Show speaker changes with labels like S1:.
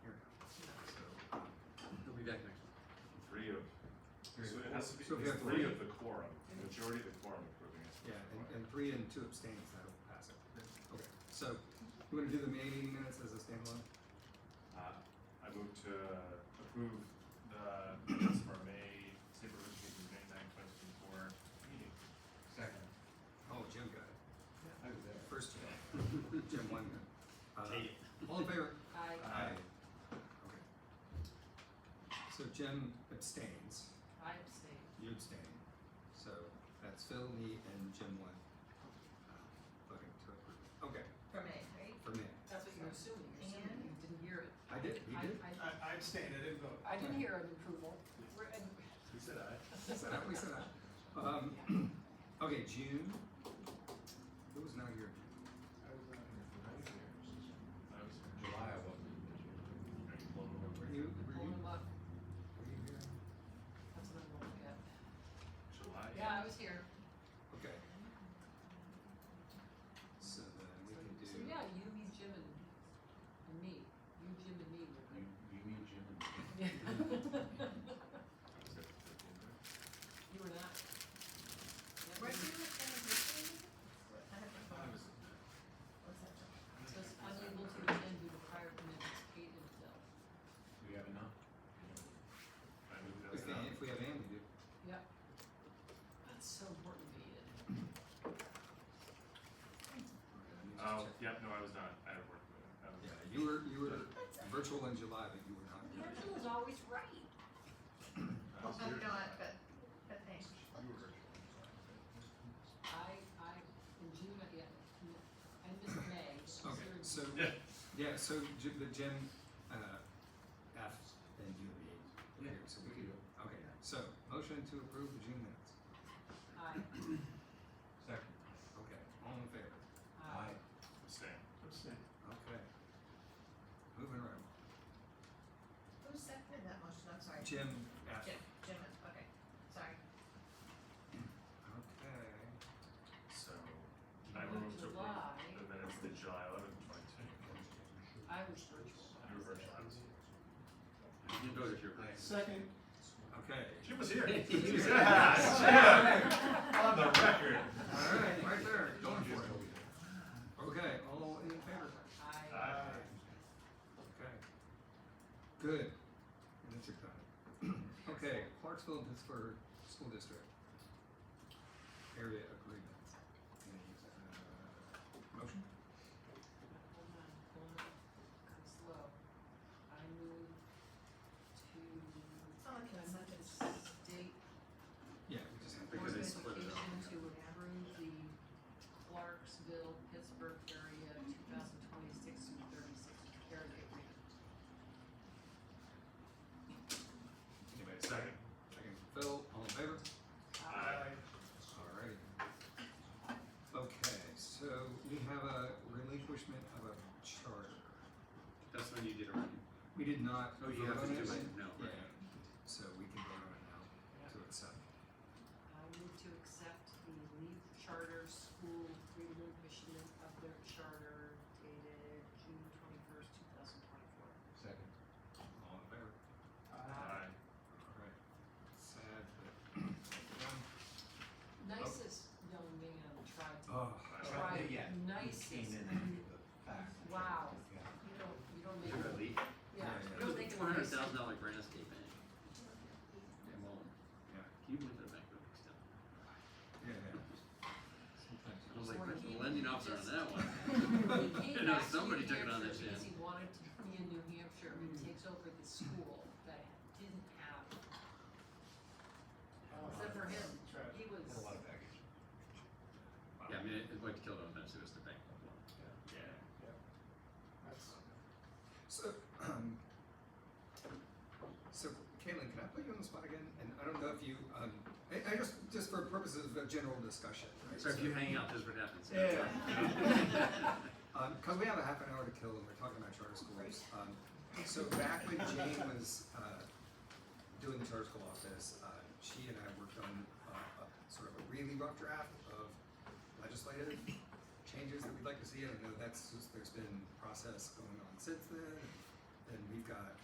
S1: has to be
S2: So if you have
S1: three
S2: three-
S1: of the quorum, the majority of the quorum approving it.
S2: Yeah, and, and three and two abstains, that'll pass it. Okay, so you wanna do the May meeting minutes as a standalone?
S1: Uh, I move to approve the minutes for May, Sabrewood meeting, May ninth, twenty twenty-four meeting. Second.
S2: Oh, Jim got it.
S1: I was there.
S2: First Jim. Jim won. Uh, All in favor?
S3: I,
S1: Aye.
S2: Okay. So Jim abstains,
S3: I abstain.
S2: you abstain, so that's Phil, me, and Jim won. uh, Voting to approve. Okay,
S4: From A, right?
S2: for me.
S3: That's what you're assuming. You're assuming
S4: And?
S3: you didn't hear it.
S2: I did, he
S3: I-
S2: did.
S3: I-
S5: I, I abstain, I didn't vote.
S3: I didn't hear an approval. We're, and
S1: He said aye.
S2: We said that, we said that. Um, okay, June. Who was not here?
S5: I was not here.
S1: I was there.
S6: July, I wasn't.
S1: Are you blown away?
S2: Were you, were
S3: hold
S2: you,
S3: them up.
S2: were you here?
S3: That's what I'm looking at.
S1: July?
S3: Yeah, I was here.
S2: Okay. So then we
S3: So,
S2: can do.
S3: so yeah, you, me, Jim, and, and me. You, Jim, and me
S6: You,
S3: were there.
S6: you mean Jim and
S1: I was there for fifteen minutes.
S3: You were not. Yeah,
S4: Were you
S3: you-
S4: attending this meeting? I have to
S1: I
S4: find-
S1: was.
S4: what's that?
S3: Just unable to attend due to prior commitments, Kate and Phil.
S6: Do we have enough?
S1: I moved
S2: If,
S1: those
S2: they-
S1: out.
S2: if we have Andy, do.
S3: Yep. That's so important to me.
S2: okay, let me just
S1: Oh,
S2: check.
S1: yep, no, I was not, I had work, I was.
S2: Yeah, you were, you were virtual in July, but you were not here.
S3: Virgil is always right.
S1: I was
S4: Oh,
S1: here.
S4: I'm not, but, but thanks.
S1: You were virtual.
S3: I, I, in June, I, yeah, I missed May. but
S2: Okay,
S3: considering-
S2: so,
S1: Yeah.
S2: yeah, so Jim, the Jim, uh, F, then you and me. were here, So we can, okay, so motion to approve the June minutes.
S3: I,
S6: Second.
S2: Okay, all in favor?
S3: I.
S1: Abstain.
S2: Okay. Moving around.
S4: Who seconded that motion? I'm sorry.
S2: Jim F.
S4: Jim, Jim, okay, sorry.
S2: Okay.
S1: So, I moved to approve
S3: July.
S1: the minutes to July eleventh, twenty twenty-four.
S3: I was virtual.
S1: You were virtual, I was here.
S6: You voted your way.
S5: Second.
S2: Okay.
S1: Jim was here.
S2: was here.
S1: Ah, Yes, Jim. On the record.
S2: All right, right there, going for it. Okay, all in favor?
S3: I,
S1: Aye.
S2: Okay. Good. And it's your time. Okay, Clarksville and Pittsburgh School District. Area agreement. Any, uh, Motion?
S3: hold on, hold on, I'm slow. I moved to
S4: It's on the consent
S3: the
S4: agenda.
S3: state
S2: Yeah, we just have to.
S3: board of
S6: they split it
S3: education
S6: up,
S3: to approve the Clarksville, Pittsburgh area two thousand twenty-six through thirty-six area agreement.
S1: Anyway, second.
S2: Second, Phil, all in favor?
S1: Aye.
S2: Alrighty. Okay, so we have a relinquishment of a charter.
S6: That's when you did it right.
S2: We did not.
S6: Oh, you
S2: vote
S6: have
S2: on
S6: to do it now,
S2: Yeah,
S6: right.
S2: so we can vote on it now to accept.
S3: I move to accept the Leaf Charter School relinquishment of their charter dated June twenty-first, two thousand twenty-four.
S6: Second.
S2: All in favor?
S1: Aye.
S2: Alright. Sad, but.
S3: Nicest young man tried to,
S2: Oh,
S1: Aye.
S3: tried,
S6: yeah,
S3: nicest,
S6: Came in
S3: I
S6: after
S3: mean,
S6: the fact.
S3: Wow. you don't, you don't make,
S6: Really?
S3: yeah,
S2: Yeah,
S3: you
S2: yeah.
S6: It was
S3: don't make a
S6: one hundred
S3: nice.
S6: thousand dollar grant escape in it. Come on.
S2: Yeah.
S6: Can you believe that bank building stuff?
S2: yeah, yeah. Sometimes
S6: I was
S3: So
S6: like,
S3: when
S6: where's
S3: he
S6: the lending officer on
S3: just-
S6: that one?
S3: He
S6: You
S3: came
S6: know,
S3: back to
S6: somebody
S3: New
S6: took it on
S3: Hampshire
S6: their
S3: Because
S6: chin.
S3: he wanted to be in New Hampshire and takes over the school that didn't have, except for him, he was,
S5: A lot of baggage.
S6: Yeah, I mean, it- it's like killed on that, so it's the bank.
S1: Yeah.
S5: That's,
S2: So, um, so Caitlin, can I put you on the spot again? And I don't know if you, um, I, I just, just for purposes of a general discussion, right?
S6: So if you hang out, this is what happens.
S2: Yeah. Um, cause we have a half an hour to kill and we're talking about charter schools. Um, so back when Jane was, uh, doing the charter school office, uh, she and I worked on, uh, a, sort of a really rough draft of legislative changes that we'd like to see. I know that's, just- there's been process going on since then. And we've got